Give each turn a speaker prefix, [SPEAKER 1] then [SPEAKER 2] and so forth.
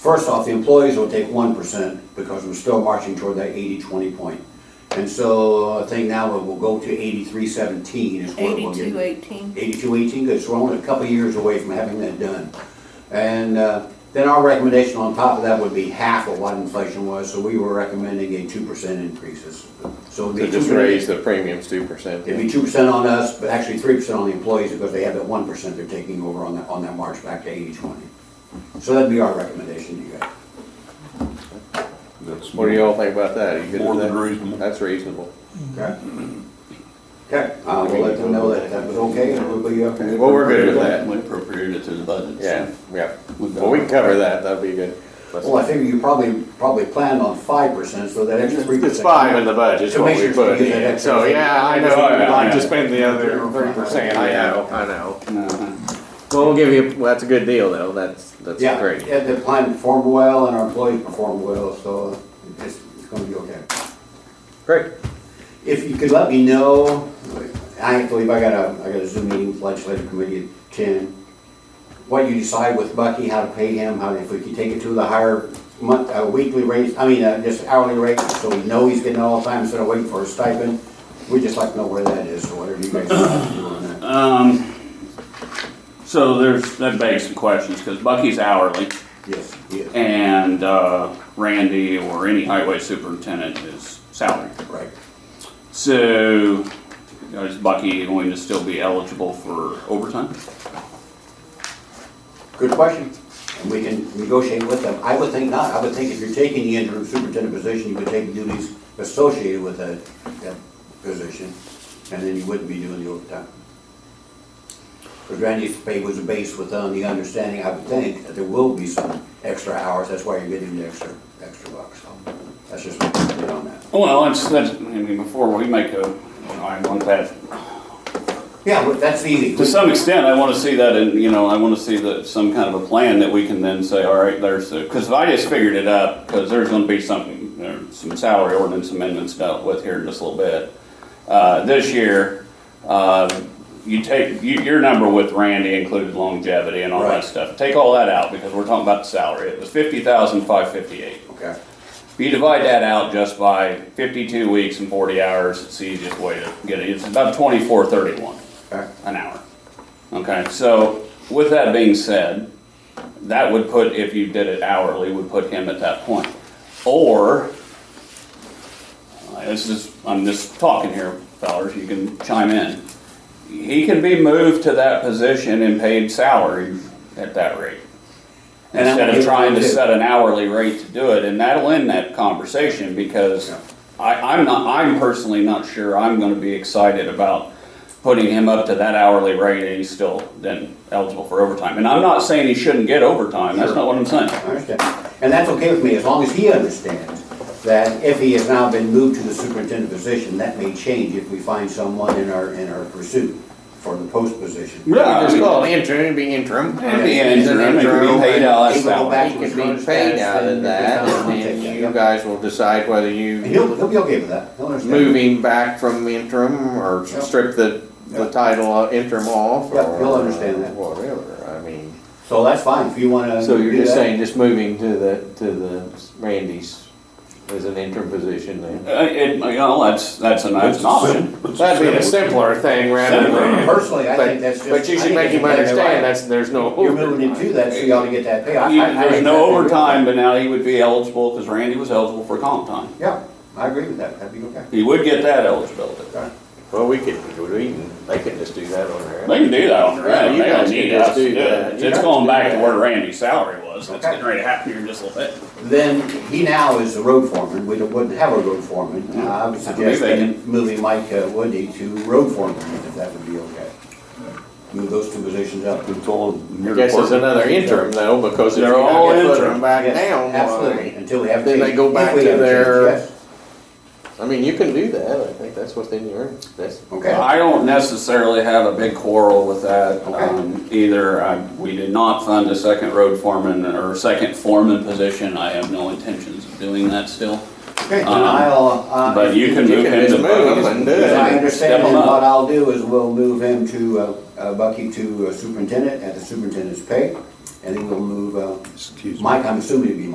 [SPEAKER 1] First off, the employees will take one percent because we're still marching toward that 80-20 point. And so I think now it will go to eighty-three seventeen is what it will be.
[SPEAKER 2] Eighty-two eighteen.
[SPEAKER 1] Eighty-two eighteen, good, so we're only a couple of years away from having that done. And uh, then our recommendation on top of that would be half of what inflation was, so we were recommending a two percent increases. So it'd be
[SPEAKER 3] So just
[SPEAKER 1] 2%.
[SPEAKER 3] raise the premiums two percent.
[SPEAKER 1] It'd be two percent on us, but actually three percent on the employees because they have that one percent they're taking over on that, on that march back to eighty-twenty. So that'd be our recommendation to you guys.
[SPEAKER 4] That's
[SPEAKER 3] What do y'all think about that? Are you good
[SPEAKER 4] More
[SPEAKER 3] with
[SPEAKER 4] than
[SPEAKER 3] that?
[SPEAKER 4] reasonable.
[SPEAKER 3] That's reasonable.
[SPEAKER 1] Okay? Okay, I will let them know that that was okay and it'll be, okay.
[SPEAKER 3] Well, we're good with that.
[SPEAKER 5] We appropriated it to the budget. so
[SPEAKER 3] Yeah, yeah.
[SPEAKER 5] we've got-
[SPEAKER 3] Well, we can cover that. That'd be good.
[SPEAKER 1] Well, I figure you probably, probably planned on five percent, so that extra three percent.
[SPEAKER 3] It's five in the budget, is what we
[SPEAKER 1] Commissioners can
[SPEAKER 3] put
[SPEAKER 1] get that
[SPEAKER 3] in.
[SPEAKER 1] extra.
[SPEAKER 3] So, yeah, I know. I'd like
[SPEAKER 5] Yeah.
[SPEAKER 3] to spend the other thirty percent. I know, I know.
[SPEAKER 5] Uh-huh.
[SPEAKER 3] Well, we'll give you, well, that's a good deal though. That's, that's
[SPEAKER 1] Yeah,
[SPEAKER 3] great.
[SPEAKER 1] yeah, the plan performed well and our employees performed well, so it's, it's gonna be okay.
[SPEAKER 3] Great.
[SPEAKER 1] If you could let me know, I believe I got a, I got a Zoom meeting with legislative committee at ten. What you decide with Bucky, how to pay him, how, if we could take it to the higher month, uh, weekly rate, I mean, uh, just hourly rate, so we know he's getting all the time instead of waiting for a stipend. We'd just like to know where that is, so whatever you guys want to do on that.
[SPEAKER 5] Um, so there's, that begs some questions, because Bucky's hourly,
[SPEAKER 1] Yes, yes,
[SPEAKER 5] and, uh, Randy or any highway superintendent is salary.
[SPEAKER 1] right.
[SPEAKER 5] So, is Bucky going to still be eligible for overtime?
[SPEAKER 1] Good question. And we can negotiate with them. I would think not. I would think if you're taking the interim superintendent position, you would take duties associated with that, that position, and then you wouldn't be doing the overtime. Because Randy's pay was based with, on the understanding, I would think, that there will be some extra hours. That's why you're getting the extra, extra bucks. So That's just my opinion on that.
[SPEAKER 5] Well, that's, that's, I mean, before we make a, you know, I want that,
[SPEAKER 1] Yeah, but that's easy.
[SPEAKER 5] to some extent, I want to see that in, you know, I want to see that, some kind of a plan that we can then say, all right, there's the, because I just figured it up, because there's going to be something, there are some salary ordinance amendments dealt with here in just a little bit. Uh, this year, uh, you take, you, your number with Randy included longevity and all
[SPEAKER 1] Right.
[SPEAKER 5] that stuff. Take all that out, because we're talking about the salary. It was fifty thousand five fifty-eight.
[SPEAKER 1] Okay,
[SPEAKER 5] If you divide that out just by fifty-two weeks and forty hours, it's the easiest way to get it. It's about twenty-four thirty-one
[SPEAKER 1] okay.
[SPEAKER 5] an hour. Okay, so with that being said, that would put, if you did it hourly, would put him at that point. Or, uh, this is, I'm just talking here, fellas, you can chime in. He can be moved to that position and paid salary at that rate.
[SPEAKER 1] And I'm okay
[SPEAKER 5] Instead of
[SPEAKER 1] with
[SPEAKER 5] trying to
[SPEAKER 1] that.
[SPEAKER 5] set an hourly rate to do it, and that'll end that conversation, because
[SPEAKER 1] Yeah.
[SPEAKER 5] I, I'm not, I'm personally not sure I'm gonna be excited about putting him up to that hourly rate and he's still then eligible for overtime. And I'm not saying he shouldn't get overtime, that's not what I'm saying.
[SPEAKER 1] I understand. And that's okay with me, as long as he understands that if he has now been moved to the superintendent position, that may change if we find someone in our, in our pursuit for the post position.
[SPEAKER 5] Yeah, I
[SPEAKER 3] Just
[SPEAKER 5] mean-
[SPEAKER 3] call it interim, it'd be interim.
[SPEAKER 5] It'd be
[SPEAKER 3] It's an
[SPEAKER 5] interim, it could be
[SPEAKER 3] interim.
[SPEAKER 5] paid out of
[SPEAKER 1] He would go
[SPEAKER 5] salary.
[SPEAKER 1] back
[SPEAKER 3] It
[SPEAKER 1] to his
[SPEAKER 3] could
[SPEAKER 1] current
[SPEAKER 3] be paid
[SPEAKER 1] status,
[SPEAKER 3] out of
[SPEAKER 1] and if it's
[SPEAKER 3] that,
[SPEAKER 1] not,
[SPEAKER 3] and
[SPEAKER 1] we'll
[SPEAKER 3] then
[SPEAKER 1] take that,
[SPEAKER 3] you
[SPEAKER 1] yeah.
[SPEAKER 3] guys will decide whether
[SPEAKER 1] And
[SPEAKER 3] you
[SPEAKER 1] He'll, he'll be okay with that, he'll understand.
[SPEAKER 3] move him back from interim or
[SPEAKER 1] Yeah.
[SPEAKER 3] strip the, the
[SPEAKER 1] Yeah.
[SPEAKER 3] title of interim off.
[SPEAKER 1] Yeah,
[SPEAKER 3] or
[SPEAKER 1] he'll understand that.
[SPEAKER 3] Whatever, I mean,
[SPEAKER 1] So that's fine, if you wanna.
[SPEAKER 3] so you're
[SPEAKER 1] do
[SPEAKER 3] just
[SPEAKER 1] that.
[SPEAKER 3] saying, just moving to the, to the Randy's as an interim position then?
[SPEAKER 5] Uh, it, you know, that's, that's an
[SPEAKER 4] That's
[SPEAKER 5] that's
[SPEAKER 4] a
[SPEAKER 5] an option.
[SPEAKER 4] sim- that's a
[SPEAKER 3] That'd be a
[SPEAKER 4] simple-
[SPEAKER 3] simpler thing rather than.
[SPEAKER 1] Personally, I
[SPEAKER 3] but-
[SPEAKER 1] think that's just.
[SPEAKER 3] But you
[SPEAKER 1] I
[SPEAKER 3] should
[SPEAKER 1] think
[SPEAKER 3] make
[SPEAKER 1] it's
[SPEAKER 3] him
[SPEAKER 1] exactly
[SPEAKER 3] understand
[SPEAKER 1] right.
[SPEAKER 3] that's, there's no.
[SPEAKER 1] You're moving him to that, so you ought to get that pay. I-
[SPEAKER 5] You-
[SPEAKER 1] I- I
[SPEAKER 5] There's
[SPEAKER 1] exactly
[SPEAKER 5] no
[SPEAKER 1] agree with
[SPEAKER 5] overtime,
[SPEAKER 1] that.
[SPEAKER 5] but now he would be eligible, because Randy was eligible for comp time.
[SPEAKER 1] Yeah, I agree with that, that'd be okay.
[SPEAKER 5] He would get that eligibility.
[SPEAKER 1] Okay.
[SPEAKER 3] Well, we could, we can, they can just do that on their
[SPEAKER 5] They
[SPEAKER 3] own.
[SPEAKER 5] can do that on their
[SPEAKER 3] Yeah,
[SPEAKER 5] own,
[SPEAKER 3] you
[SPEAKER 5] they don't
[SPEAKER 3] guys can
[SPEAKER 5] need
[SPEAKER 3] just
[SPEAKER 5] us to
[SPEAKER 3] do
[SPEAKER 5] do
[SPEAKER 3] that.
[SPEAKER 5] it.
[SPEAKER 3] You
[SPEAKER 5] It's
[SPEAKER 3] guys
[SPEAKER 5] going
[SPEAKER 3] can
[SPEAKER 5] back
[SPEAKER 3] do
[SPEAKER 5] to
[SPEAKER 3] that.
[SPEAKER 5] where Randy's salary was, that's
[SPEAKER 1] Okay.
[SPEAKER 5] getting ready to happen here in just a little bit.
[SPEAKER 1] Then he now is the road foreman, we don't- wouldn't have a road foreman. Uh, I would
[SPEAKER 5] believe
[SPEAKER 1] suggest
[SPEAKER 5] they
[SPEAKER 1] then moving Mike uh, Woody to road foreman, if that would be okay. Move those two positions up.
[SPEAKER 5] It's all in
[SPEAKER 3] I
[SPEAKER 5] your
[SPEAKER 3] guess it's
[SPEAKER 5] department.
[SPEAKER 3] another interim though, because if you
[SPEAKER 5] They're
[SPEAKER 3] don't
[SPEAKER 5] all
[SPEAKER 3] get put
[SPEAKER 5] interim.
[SPEAKER 3] them back
[SPEAKER 1] Yes,
[SPEAKER 3] down, well, I
[SPEAKER 1] Absolutely,
[SPEAKER 3] mean,
[SPEAKER 1] until we have.
[SPEAKER 3] then they
[SPEAKER 1] change.
[SPEAKER 3] go
[SPEAKER 1] If
[SPEAKER 3] back
[SPEAKER 1] we
[SPEAKER 3] to
[SPEAKER 1] have change,
[SPEAKER 3] their-
[SPEAKER 1] yes.
[SPEAKER 3] I mean, you can do that, I think that's within your, that's,
[SPEAKER 1] Okay,
[SPEAKER 5] I don't necessarily have a big quarrel with that
[SPEAKER 1] Okay.
[SPEAKER 5] um, either. I- We did not fund a second road foreman or second foreman position. I have no intentions of doing that still.
[SPEAKER 1] okay, then
[SPEAKER 5] um,
[SPEAKER 1] I'll, uh.
[SPEAKER 5] But you can
[SPEAKER 3] You
[SPEAKER 5] move
[SPEAKER 3] can
[SPEAKER 5] him to.
[SPEAKER 3] just move him and do it.
[SPEAKER 1] As I understand,
[SPEAKER 5] Step
[SPEAKER 1] then
[SPEAKER 5] him
[SPEAKER 1] what
[SPEAKER 5] up.
[SPEAKER 1] I'll do is we'll move him to, uh, uh, Bucky to uh, superintendent at the superintendent's pay. and then we'll move, uh,
[SPEAKER 2] Excuse me.
[SPEAKER 1] Mike, I'm assuming it'd be